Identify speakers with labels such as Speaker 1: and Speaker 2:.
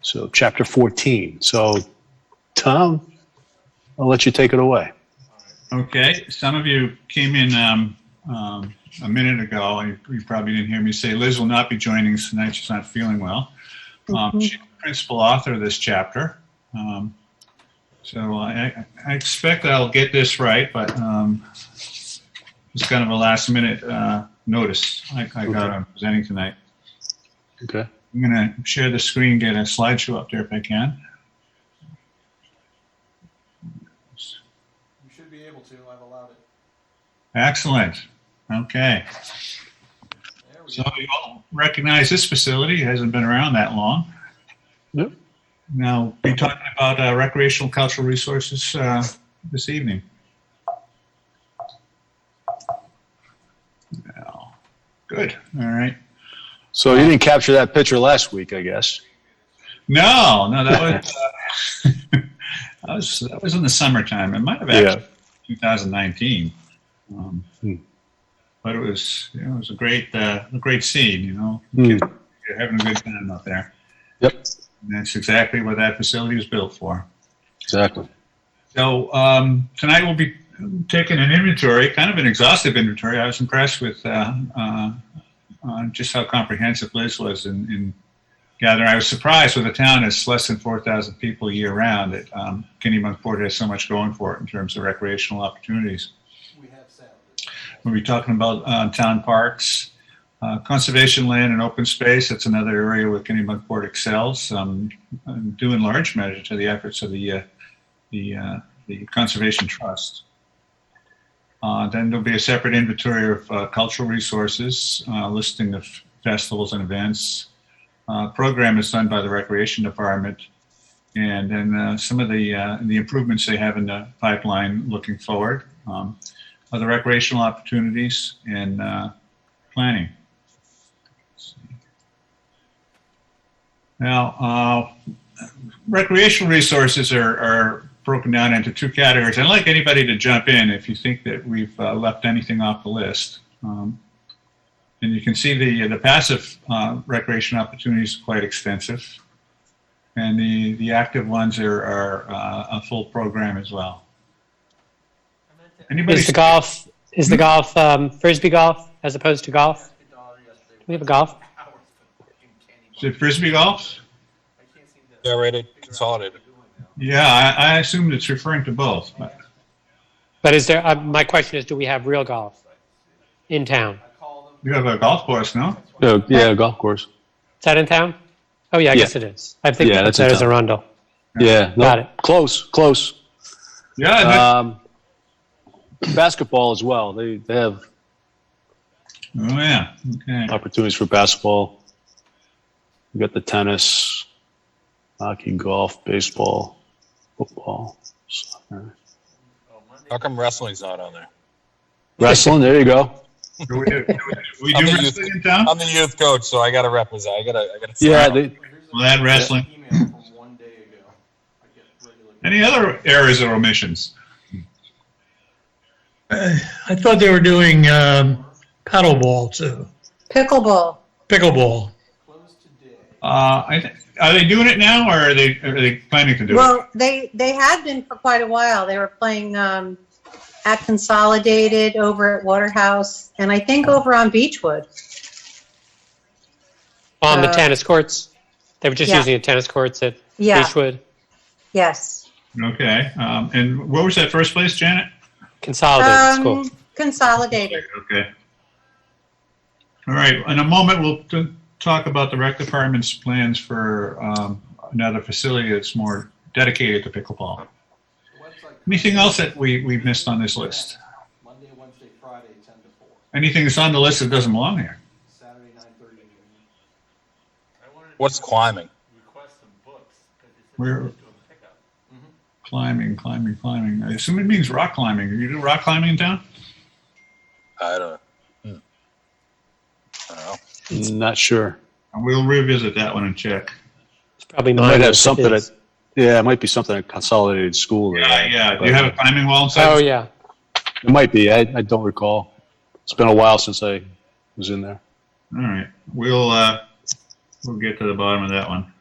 Speaker 1: So chapter 14. So Tom, I'll let you take it away.
Speaker 2: Okay, some of you came in um, um, a minute ago, and you probably didn't hear me say Liz will not be joining us tonight. She's not feeling well. Um, She's the principal author of this chapter. Um, So I I expect I'll get this right, but um, it's kind of a last-minute uh, notice I I got on presenting tonight.
Speaker 1: Okay.
Speaker 2: I'm going to share the screen, get a slideshow up there if I can.
Speaker 3: You should be able to, I've allowed it.
Speaker 2: Excellent. Okay.
Speaker 3: There we
Speaker 2: So
Speaker 3: go.
Speaker 2: you all recognize this facility It hasn't been around that long.
Speaker 1: Yep.
Speaker 2: Now, we're talking about uh, recreational cultural resources uh, this evening. Well, Good, all right.
Speaker 1: So you didn't capture that picture last week, I guess.
Speaker 2: No, no, that was, uh, that was, that was in the summertime. It might have actually 2019. Um,
Speaker 1: Hmm.
Speaker 2: But it was, you know, it was a great, uh, a great scene. You know,
Speaker 1: Hmm.
Speaker 2: you're having a good time out there.
Speaker 1: Yep.
Speaker 2: And that's exactly what that facility was built for.
Speaker 1: Exactly.
Speaker 2: So um, tonight we'll be taking an inventory, kind of an exhaustive inventory. I was impressed with uh, uh, uh, just how comprehensive Liz was in, in gathering. I was surprised with a town that's less than 4,000 people year round that um, Kennebunkport has so much going for it in terms of recreational opportunities.
Speaker 3: We have sound.
Speaker 2: We'll be talking about uh, town parks, uh, conservation land and open space. That's another area where Kennebunkport excels, um, and due in large measure to the efforts of the uh, the uh, the Conservation Trust. Uh, then there'll be a separate inventory of uh, cultural resources, uh, listing of festivals and events. Uh, program is done by the Recreation Department, and then uh, some of the uh, the improvements they have in the pipeline looking forward. Um, other recreational opportunities and uh, planning. Now, uh, recreational resources are, are broken down into two categories. I'd like anybody to jump in if you think that we've uh, left anything off the list. Um, and you can see the the passive uh, recreation opportunities are quite extensive, and the the active ones are, are uh, a full program as well. Anybody?
Speaker 4: Is the golf is the golf um, frisbee golf as opposed to golf?
Speaker 3: A dollar yesterday.
Speaker 4: We have a golf.
Speaker 3: Hours for fucking candy
Speaker 2: Is it
Speaker 3: bars.
Speaker 2: frisbee golf?
Speaker 3: I can't seem to figure out
Speaker 5: Generated,
Speaker 3: what
Speaker 5: consolidated.
Speaker 3: they're doing now.
Speaker 2: Yeah, I, I assumed it's referring to both. But
Speaker 4: But is there? Uh, my question is, do we have real golf in town?
Speaker 3: I call them,
Speaker 2: you have a golf course, no?
Speaker 1: No, yeah, golf course.
Speaker 4: Is that in town? Oh yeah, I
Speaker 1: Yeah.
Speaker 4: guess it is. I think
Speaker 1: Yeah,
Speaker 4: I put
Speaker 1: that's in
Speaker 4: that as
Speaker 1: town.
Speaker 4: Arundel.
Speaker 1: Yeah. no,
Speaker 4: Got it.
Speaker 1: Close, close.
Speaker 2: Yeah, and
Speaker 5: Uh,
Speaker 2: that-
Speaker 1: Um, basketball as well. They, they have
Speaker 2: oh yeah.
Speaker 5: uh,
Speaker 2: Okay.
Speaker 1: opportunities for basketball. You got the tennis, hockey, golf, baseball, football, soccer.
Speaker 3: oh, Monday,
Speaker 5: How come wrestling's not on there?
Speaker 1: wrestling. There you go.
Speaker 2: Do we, do we, we
Speaker 5: I'm
Speaker 2: do
Speaker 5: the
Speaker 2: wrestling in town?
Speaker 5: I'm the youth coach, so I gotta represent. I gotta, I gotta.
Speaker 1: Yeah, they,
Speaker 3: here's
Speaker 2: Well, that
Speaker 3: a-
Speaker 2: wrestling.
Speaker 3: Email from one day ago. I get regular-
Speaker 2: Any other errors or omissions?
Speaker 6: Uh, I thought they were doing um, paddleball too,
Speaker 7: Pickleball.
Speaker 6: pickleball.
Speaker 3: Closed today.
Speaker 2: Uh, I th- are they doing it now, or are they are they planning to do it?
Speaker 7: Well, they they had been for quite a while. They were playing um, at Consolidated over at Waterhouse, and I think
Speaker 6: Oh.
Speaker 7: over on Beechwood.
Speaker 4: On the
Speaker 7: Uh,
Speaker 4: tennis courts, they were just
Speaker 7: yeah.
Speaker 4: using the tennis courts at
Speaker 7: Yeah.
Speaker 4: Beechwood.
Speaker 7: Yes.
Speaker 2: Okay. Um, and what was that first place, Janet?
Speaker 6: Oh,
Speaker 4: Consolidated school.
Speaker 7: Um, consolidated.
Speaker 2: Okay. All right. In a moment, we'll t- talk about the rec department's plans for um, another facility that's more dedicated to pickleball.
Speaker 3: The website-
Speaker 2: Anything else that we, we missed on this list?
Speaker 3: Monday, Wednesday, Friday, ten to four,
Speaker 2: Anything that's on the list that doesn't belong here?
Speaker 3: Saturday, nine thirty to noon. I wanted to
Speaker 5: What's climbing?
Speaker 3: request some books, because it's
Speaker 2: We're
Speaker 3: pickup.
Speaker 2: climbing, climbing, climbing. I assume it means rock climbing. You do rock climbing in town?
Speaker 5: I don't. hmm. I don't know.
Speaker 1: not sure.
Speaker 2: We'll revisit that one and check.
Speaker 4: It's probably
Speaker 1: It might
Speaker 4: mine.
Speaker 1: have
Speaker 4: if it
Speaker 1: something
Speaker 4: is.
Speaker 1: that, yeah, it might be something at consolidated school.
Speaker 2: Yeah, yeah. Do you have a climbing wall
Speaker 4: Oh
Speaker 2: inside?
Speaker 4: yeah.
Speaker 1: It might be. I, I don't recall. It's been a while since I was in there.
Speaker 2: All right. We'll, uh, we'll get to the bottom of that one.